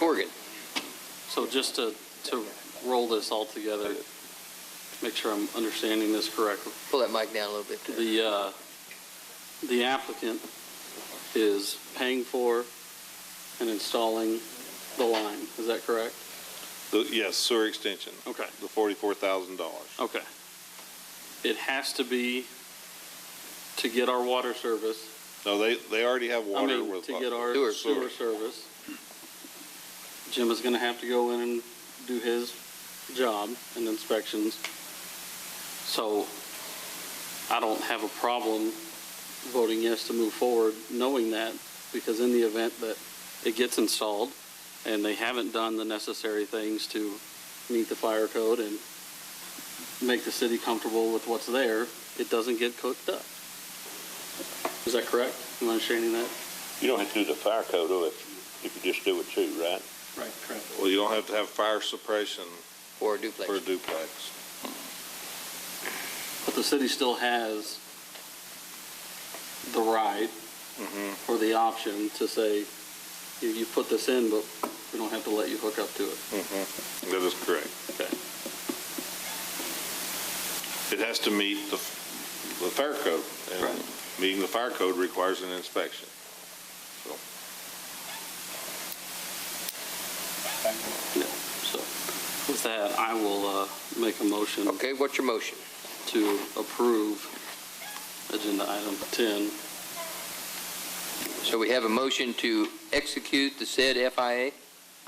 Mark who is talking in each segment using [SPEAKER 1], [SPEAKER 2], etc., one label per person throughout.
[SPEAKER 1] Morgan. So just to, to roll this all together, make sure I'm understanding this correctly.
[SPEAKER 2] Pull that mic down a little bit. there.
[SPEAKER 1] The, uh, the applicant is paying for and installing the line, is that correct?
[SPEAKER 3] The- Yes, sewer extension,
[SPEAKER 1] Okay.
[SPEAKER 3] the forty-four thousand dollars.
[SPEAKER 1] Okay. It has to be to get our water service.
[SPEAKER 3] No, they, they already have
[SPEAKER 1] I
[SPEAKER 3] water
[SPEAKER 1] mean,
[SPEAKER 3] with.
[SPEAKER 1] to get our
[SPEAKER 2] Sewer.
[SPEAKER 1] sewer service. Jim is gonna have to go in and do his job and inspections. So I don't have a problem voting yes to move forward, knowing that, because in the event that it gets installed and they haven't done the necessary things to meet the fire code and make the city comfortable with what's there, it doesn't get cooked up. Is that correct? Am I understanding that?
[SPEAKER 4] You don't have to do the fire code though, if, if you just do it too, right?
[SPEAKER 1] Right, correct.
[SPEAKER 3] Well, you don't have to have fire suppression
[SPEAKER 2] Or a duplex.
[SPEAKER 3] for a duplex.
[SPEAKER 1] But the city still has the right
[SPEAKER 3] Mm-hmm,
[SPEAKER 1] or the option to say, you, you put this in, but we don't have to let you hook up to it.
[SPEAKER 3] mm-hmm. That is correct.
[SPEAKER 1] Okay.
[SPEAKER 3] It has to meet the, the fire code. and
[SPEAKER 1] Right.
[SPEAKER 3] Meeting the fire code requires an inspection.
[SPEAKER 1] Yeah, so with that, I will, uh, make a motion
[SPEAKER 2] Okay, what's your motion?
[SPEAKER 1] to approve agenda item 10.
[SPEAKER 2] So we have a motion to execute the said FIA.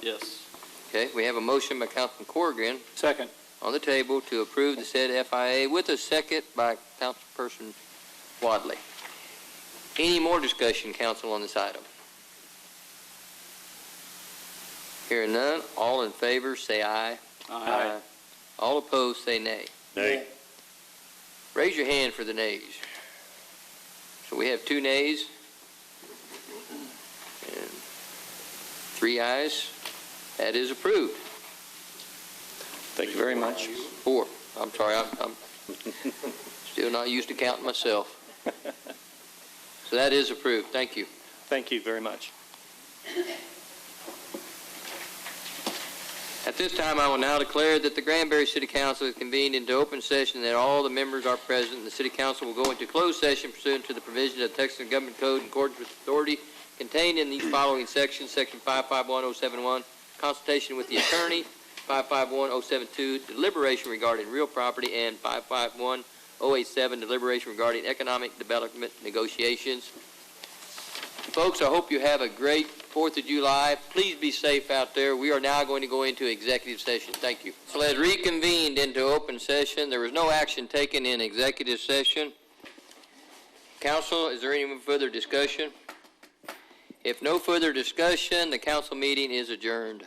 [SPEAKER 1] Yes.
[SPEAKER 2] Okay, we have a motion by Councilman Corrigan
[SPEAKER 1] Second.
[SPEAKER 2] on the table to approve the said FIA with a second by Councilperson Wadley. Any more discussion, council, on this item? Hearing none, all in favor, say aye.
[SPEAKER 1] Aye.
[SPEAKER 2] All opposed, say nay.
[SPEAKER 4] Nay.
[SPEAKER 2] Raise your hand for the nays. So we have two nays and three ayes. That is approved.
[SPEAKER 4] Thank you very much.
[SPEAKER 2] Four. I'm sorry, I'm, I'm still not used to counting myself. So that is approved. Thank you.
[SPEAKER 4] Thank you very much.
[SPEAKER 2] At this time, I will now declare that the Granbury City Council is convened into open session, that all the members are present, and the City Council will go into closed session pursuant to the provision of Texas Government Code in accordance with authority contained in these following sections, Section 551071, consultation with the attorney, 551072, deliberation regarding real property, and 551087, deliberation regarding economic development negotiations. Folks, I hope you have a great Fourth of July. Please be safe out there. We are now going to go into executive session. Thank you. So as reconvened into open session, there was no action taken in executive session. Council, is there any further discussion? If no further discussion, the council meeting is adjourned.